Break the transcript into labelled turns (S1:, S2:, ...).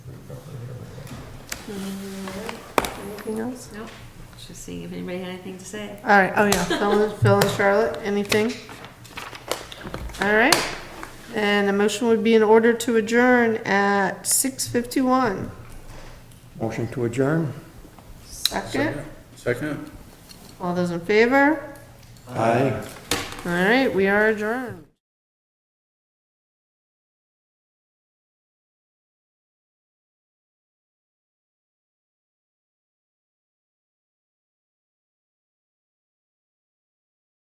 S1: Anything else?
S2: Nope, just seeing if anybody had anything to say.
S1: All right, oh yeah, Phil and- Phil and Charlotte, anything? All right, and a motion would be in order to adjourn at 6:51.
S3: Motion to adjourn?
S1: Second,
S4: Second?
S1: all those in favor?
S3: Aye.
S1: All right, we are adjourned.